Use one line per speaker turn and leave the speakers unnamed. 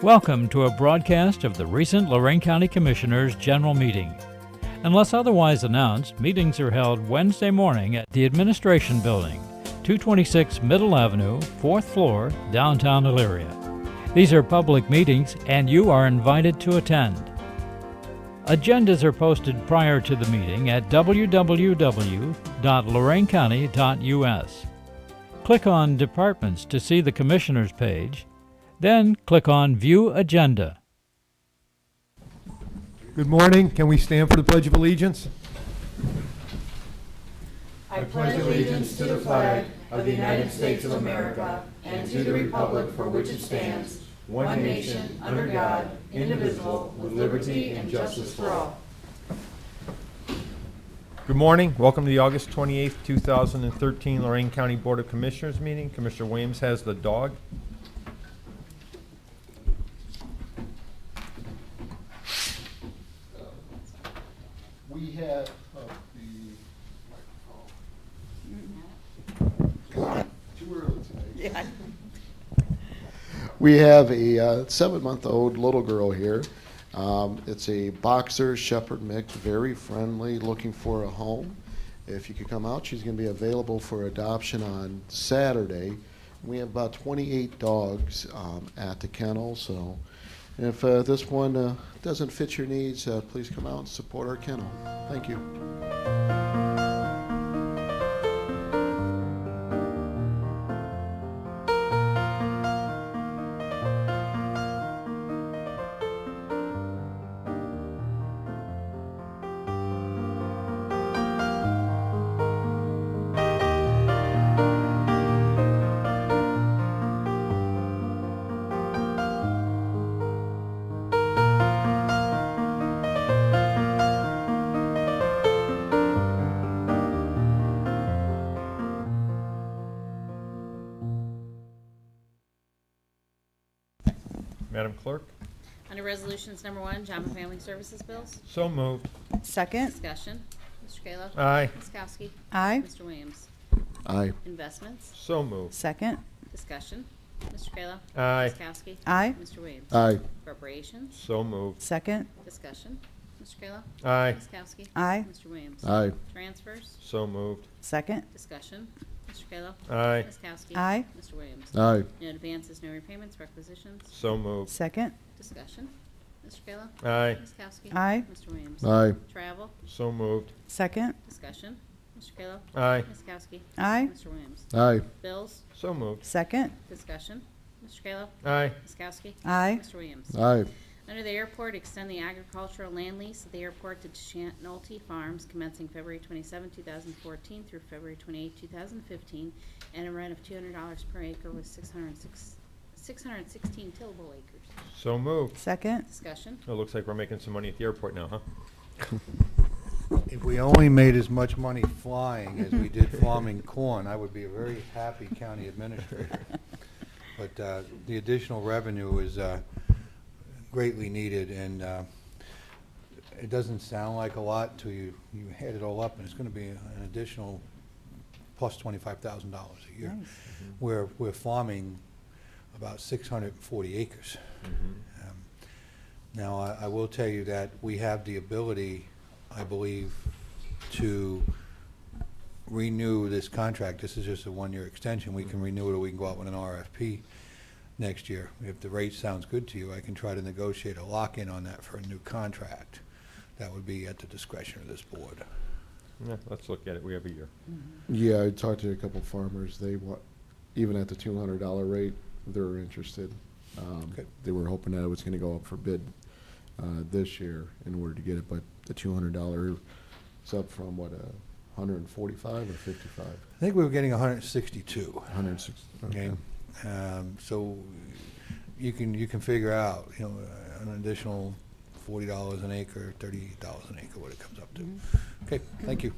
Welcome to a broadcast of the recent Lorraine County Commissioners' General Meeting. Unless otherwise announced, meetings are held Wednesday morning at the Administration Building, 226 Middle Avenue, 4th floor, downtown Elyria. These are public meetings and you are invited to attend. Agendas are posted prior to the meeting at www.loraincounty.us. Click on Departments to see the Commissioners page, then click on View Agenda.
Good morning. Can we stand for the Pledge of Allegiance?
Good morning. Welcome to the August 28th, 2013 Lorraine County Board of Commissioners meeting. Commissioner Williams has the dog.
We had uh, the Too early tonight. We have a uh, seven-month-old little girl here. Um, It's a boxer shepherd mix, very friendly, looking for a home. If you could come out, she's going to be available for adoption on Saturday. We have about 28 dogs um, at the kennel, so if uh, this one uh, doesn't fit your needs, uh, please come out and support our kennel. Thank you.
Madam Clerk,
Under Resolutions Number One, Job and Family Services Bills,
so moved.
Second,
discussion. Mr. Kayla.
Aye,
Ms. Kowski.
aye.
Mr. Williams.
Aye.
Investments,
so moved.
Second,
discussion. Mr. Kayla.
Aye,
Ms. Kowski.
aye.
Mr. Williams.
Aye.
Appropriations,
so moved.
Second,
discussion. Mr. Kayla.
Aye,
Ms. Kowski.
aye.
Mr. Williams.
Aye.
Transfers,
so moved.
Second,
discussion. Mr. Kayla.
Aye,
Ms. Kowski.
aye.
Mr. Williams.
Aye.
No advances, no repayments, requisitions,
so moved.
Second,
discussion. Mr. Kayla.
Aye,
Ms. Kowski.
Aye.
Mr. Williams.
Aye.
Travel,
so moved.
second,
discussion. Mr. Kayla.
Aye,
Ms. Kowski.
aye.
Mr. Williams.
Aye.
Bills,
so moved.
Second,
Discussion. Mr. Kayla.
Aye,
Ms. Kowski.
aye.
Mr. Williams.
Aye.
Under the airport, extend the agricultural land lease of the airport to Chant Nolte Farms commencing February 27, 2014 through February 28, 2015, and a rent of $200 per acre with 606 616 tillable acres.
so moved.
Second,
Discussion.
It looks like we're making some money at the airport now, huh?
If we only made as much money flying as we did farming corn, I would be a very happy county administrator. But uh, the additional revenue is uh, greatly needed, and uh, it doesn't sound like a lot until you, you add it all up, and it's going to be an additional plus $25,000 a year.
Nice.
We're, we're farming about 640 acres. Um, Now, I, I will tell you that we have the ability, I believe, to renew this contract. This is just a one-year extension. We can renew it, or we can go out with an RFP next year. If the rate sounds good to you, I can try to negotiate a lock-in on that for a new contract. That would be at the discretion of this board.
Yeah, let's look at it. We have a year.
Yeah, I talked to a couple farmers. They want, even at the two hundred dollar rate, they're interested. Um,
Good.
they were hoping that it was gonna go up for bid, uh, this year in order to get it, but the two hundred dollar is up from what, a hundred and forty-five or fifty-five?
I think we were getting 162.
Hundred and sixty.
Okay. Um, so you can, you can figure out, you know, an additional forty dollars an acre, thirty dollars an acre, what it comes up to. Okay, thank you.